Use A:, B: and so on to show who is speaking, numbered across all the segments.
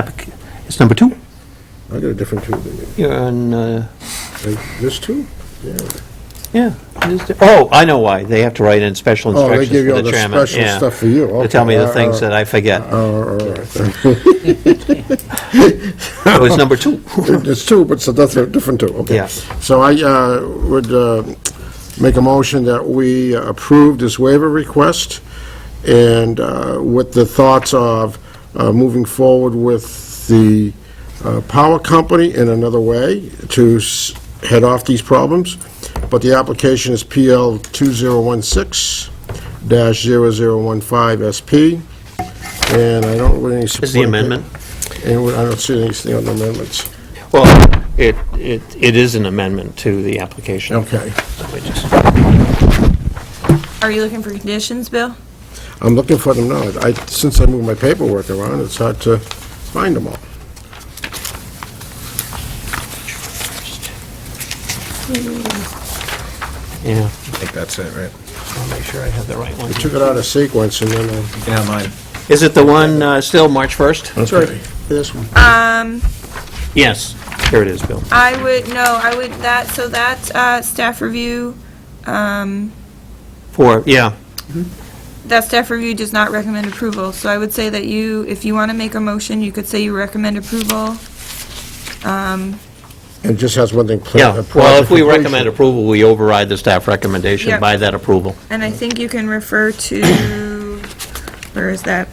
A: Applic- It's number two?
B: I got a different two than you.
A: You're on, uh,
B: Like, This two? Yeah.
A: yeah. it is there. Oh, I know why. They have to write in special
B: Oh, they
A: instructions
B: give you
A: for
B: all
A: the
B: the
A: chairman.
B: special
A: yeah.
B: stuff for you.
A: They tell me
B: Okay.
A: the
B: Uh,
A: things
B: uh,
A: that I forget.
B: Oh, all right.
A: It was number two.
B: It's two, but it's a different, different two, okay.
A: Yeah.
B: So I uh, would uh, make a motion that we approve this waiver request, and uh, with the thoughts of uh, moving forward with the uh, power company in another way to s- head off these problems, but the application is PL 2016-0015SP, and I don't really support...
A: Is the amendment?
B: And I don't see anything on the amendments.
A: Well, it, it, it is an amendment to the application.
B: Okay.
A: Let me just-
C: Are you looking for conditions, Bill?
B: I'm looking for them now. I, since I moved my paperwork around, it's hard to find them all.
A: Yeah,
D: I think that's it, right?
A: I'll make sure I have the right one.
B: Took it out of sequence and then, uh,
D: Yeah, mine.
A: Is it the one uh, still March 1st?
B: that's right, this one.
C: Um,
A: Yes, here it is, Bill.
C: I would, no, I would, that, so that's, uh, staff review, um,
A: Four, yeah,
C: that staff review does not recommend approval, so I would say that you, if you want to make a motion, you could say you recommend approval. Um,
B: It just has one thing. plan-
A: yeah.
B: uh,
A: Well, if we recommend
B: project completion.
A: approval, we override the staff recommendation
C: Yeah.
A: by that approval.
C: and I think you can refer to, where is that?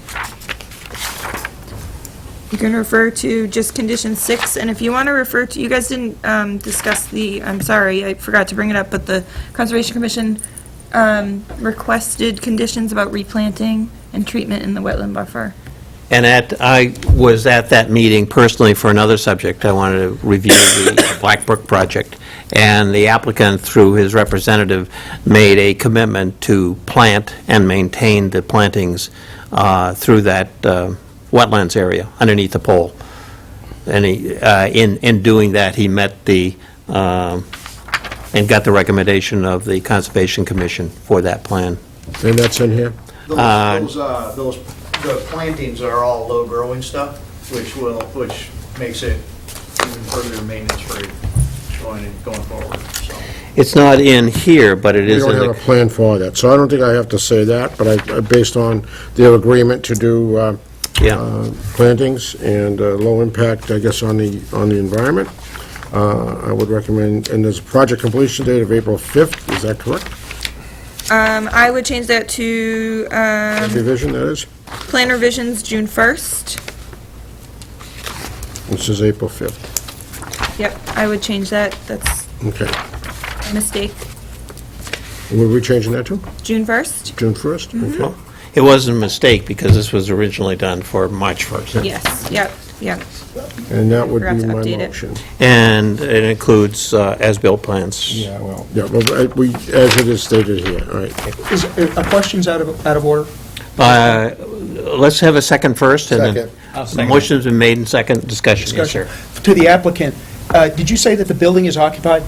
C: You can refer to just condition six, and if you want to refer to, you guys didn't, um, discuss the, I'm sorry, I forgot to bring it up, but the Conservation Commission, um, requested conditions about replanting and treatment in the wetland buffer.
A: And at, I was at that meeting personally for another subject. I wanted to review the Black Brook project. And the applicant, through his representative, made a commitment to plant and maintain the plantings uh, through that uh, wetlands area underneath the pole. And he, uh, in, in doing that, he met the, um, and got the recommendation of the Conservation Commission for that plan.
B: And that's in here?
E: Those, those, uh, those, the plantings are all low-growing stuff, which will, which makes it even further maintenance-free going, going forward, so.
A: It's not in here, but it
B: We
A: is in
B: don't
A: the...
B: have a plan for that, so I don't think I have to say that, but I, uh, based on their agreement to do uh,
A: Yeah.
B: uh, plantings and uh, low impact, I guess, on the, on the environment, uh, I would recommend, and there's a project completion date of April 5th, is that correct?
C: Um, I would change that to, um,
B: Revision, that is?
C: plan revisions June first.
B: This is April 5th,
C: Yep, I would change that, that's
B: okay.
C: a mistake.
B: Were we changing that to
C: June first?
B: June 1st?
C: Mm-hmm.
B: Okay.
A: Well, It wasn't a mistake, because this was originally done for March 1st.
C: Yes, yep, yep.
B: And that would
C: Forgot
B: be
C: to
B: my
C: update it.
B: motion.
A: And it includes uh, as-built plans.
B: well. Yeah, well, I- we, as it is stated here, all right.
F: Is, uh, are questions out of, out of order?
A: Uh, Let's have a second first, and then...
B: Second.
A: Second. Motion's been made and second, discussion, yes, sir.
F: To the applicant, uh, did you say that the building is occupied?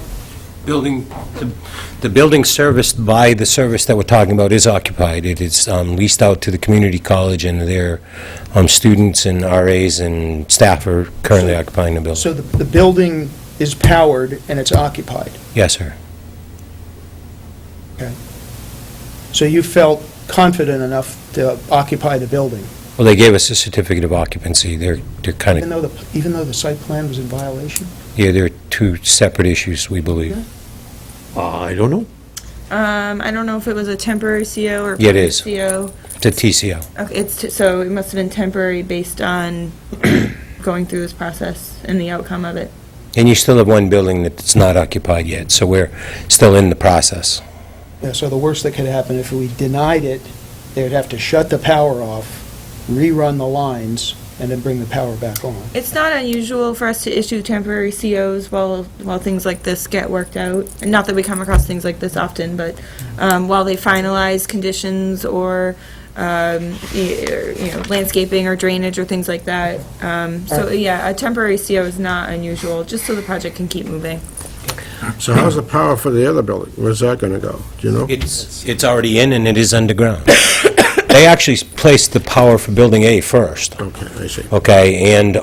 G: Building, the- the building serviced by the service that we're talking about is occupied. It is um, leased out to the community college, and their um, students and RAs and staff are currently occupying the building.
F: So the, the building is powered and it's occupied.
G: Yes, sir.
F: So you felt confident enough to occupy the building,
G: Well, they gave us a certificate of occupancy. They're, they're kind
F: even
G: of,
F: though the, even though the site plan was in violation?
G: yeah, they're two separate issues, we believe.
A: Uh, I don't know.
C: Um, I don't know if it was a temporary CO or.
G: Yeah, it is.
C: CO.
G: The TCO.
C: Okay, it's, t- so it must have been temporary based on going through this process and the outcome of it.
G: And you still have one building that's not occupied yet, so we're still in the process.
F: Yeah, so the worst that could happen, if we denied it, they would have to shut the power off, rerun the lines, and then bring the power back on.
C: It's not unusual for us to issue temporary COs while, while things like this get worked out. And Not that we come across things like this often, but, um, while they finalize conditions or, um, y- or, you know, landscaping or drainage or things like that. Um, so, yeah, a temporary CO is not unusual, just so the project can keep moving.
B: So how's the power for the other building? Where's that going to go? Do you know?
G: It's, it's already in and it is underground. They actually placed the power for Building A first,
B: Okay, I see.
G: okay? And